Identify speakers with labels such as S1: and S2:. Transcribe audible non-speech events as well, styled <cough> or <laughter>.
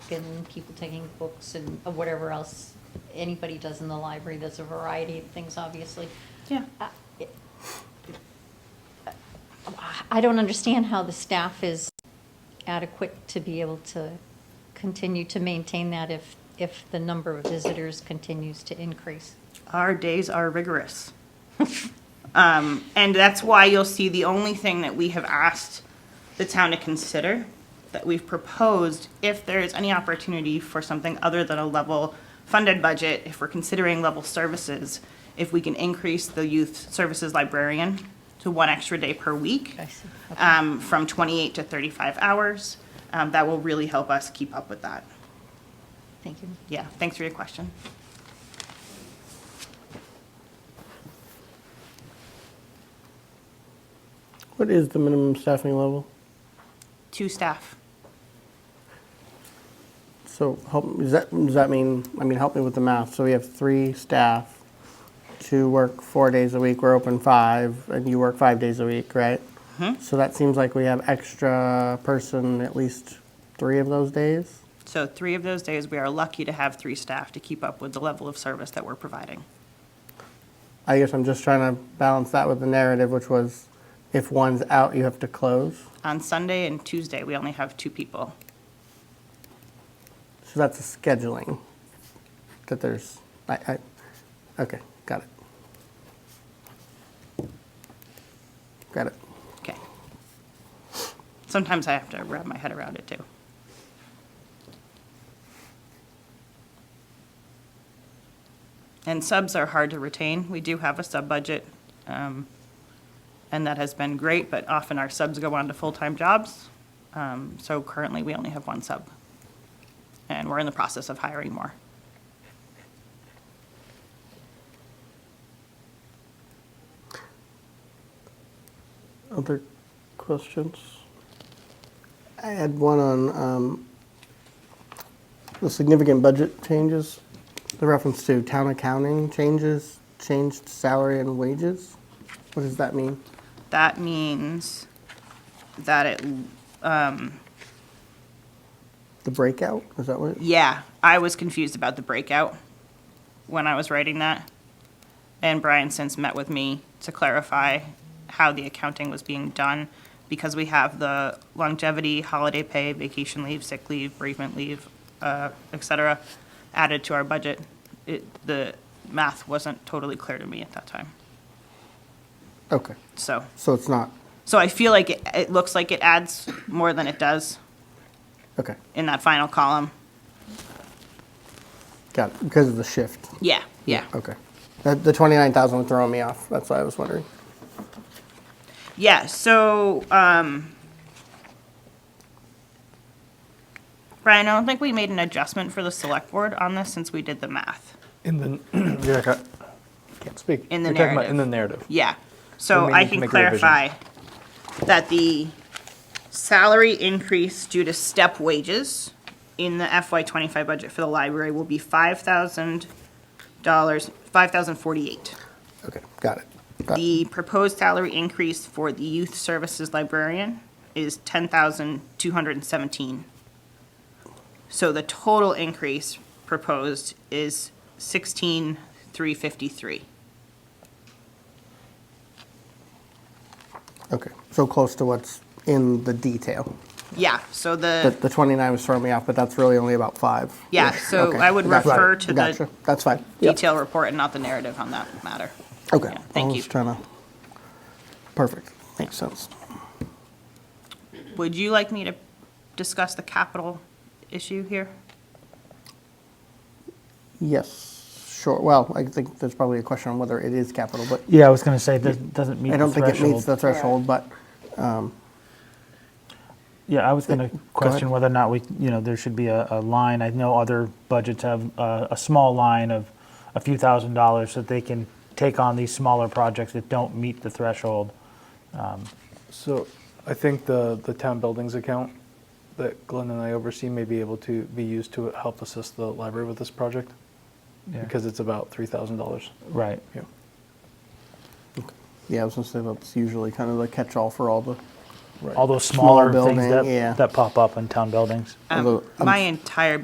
S1: and people taking books and whatever else anybody does in the library. There's a variety of things, obviously.
S2: Yeah.
S1: I- I don't understand how the staff is adequate to be able to continue to maintain that if, if the number of visitors continues to increase.
S2: Our days are rigorous. <laughs> Um, and that's why you'll see the only thing that we have asked the town to consider, that we've proposed, if there is any opportunity for something other than a level funded budget, if we're considering level services, if we can increase the youth services librarian to one extra day per week.
S1: I see. Okay.
S2: um, from 28 to 35 hours. Um, That will really help us keep up with that.
S1: Thank you.
S2: Yeah, thanks for your question.
S3: What is the minimum staffing level?
S2: Two staff.
S3: So help, does that, does that mean, I mean, help me with the math. So we have three staff, two work four days a week, we're open five, and you work five days a week, right? So that seems like we have extra person at least three of those days?
S2: So three of those days, we are lucky to have three staff to keep up with the level of service that we're providing.
S3: I guess I'm just trying to balance that with the narrative, which was if one's out, you have to close.
S2: On Sunday and Tuesday, we only have two people.
S3: So that's a scheduling that there's, I, I, okay, got it. Got it.
S2: Okay. Sometimes I have to wrap my head around it, too. And subs are hard to retain. We do have a sub-budget, um, and that has been great, but often our subs go on to full-time jobs. Um, So currently, we only have one sub, and we're in the process of hiring more.
S3: Other questions? I had one on um, the significant budget changes, the reference to town accounting changes, changed salary and wages. What does that mean?
S2: That means that it
S3: The breakout, is that what? it-
S2: Yeah, I was confused about the breakout when I was writing that. And Brian since met with me to clarify how the accounting was being done because we have the longevity, holiday pay, vacation leave, sick leave, bereavement leave, uh, et cetera, added to our budget. It, the math wasn't totally clear to me at that time.
S3: Okay,
S2: So,
S3: so it's not,
S2: so I feel like it, it looks like it adds more than it does
S3: okay,
S2: in that final column.
S3: got it, because of the shift.
S2: Yeah, yeah.
S3: Okay. That- The 29,000 was throwing me off, that's why I was wondering.
S2: Yeah, so, um, Brian, I don't think we made an adjustment for the select board on this since we did the math.
S4: In the, <clears throat> yeah, I can't- can't speak.
S2: In the
S4: You're talking about
S2: narrative.
S4: In the narrative.
S2: Yeah,
S4: Then
S2: so
S4: we
S2: I
S4: need to
S2: can
S4: make a revision.
S2: clarify that the salary increase due to step wages in the FY twenty-five budget for the library will be five thousand dollars, five thousand forty-eight.
S3: Okay, got it. Got it.
S2: The proposed salary increase for the youth services librarian is ten thousand two hundred and seventeen. So the total increase proposed is sixteen three fifty-three.
S3: Okay, so close to what's in the detail.
S2: Yeah, so
S3: The,
S2: the,
S3: the 29 was throwing me off, but that's really only about five.
S2: Uh, Yeah,
S3: Yes,
S2: so
S3: okay,
S2: I would
S3: gotcha,
S2: refer to the
S3: gotcha, That's fine. Yep.
S2: detail report and not the narrative on that matter.
S3: Okay.
S2: yeah, thank
S3: I
S2: you.
S3: was trying to, perfect, makes sense.
S2: Would you like me to discuss the capital issue here?
S3: Yes, sure, well, I think there's probably a question on whether it is capital, but
S5: Yeah, I was going to say that doesn't meet
S3: I
S5: the
S3: don't think it meets
S5: threshold.
S3: the threshold, but,
S5: Yeah, I was going to question
S3: ahead.
S5: whether or not we, you know, there should be a, a line. I know other budgets have uh, a, a small line of a few thousand dollars that they can take on these smaller projects that don't meet the threshold.
S4: So I think the, the town buildings account that Glenn and I oversee may be able to be used to help assist the library with this project
S5: Yeah.
S4: because it's about $3,000.
S5: Right.
S4: Yeah.
S3: yeah, I was gonna say that's usually kind of the catch-all for all the,
S5: All those
S3: Small
S5: smaller things
S3: building,
S5: that,
S3: yeah.
S5: that pop up in town buildings.
S2: Um,
S3: Although, um,
S2: My entire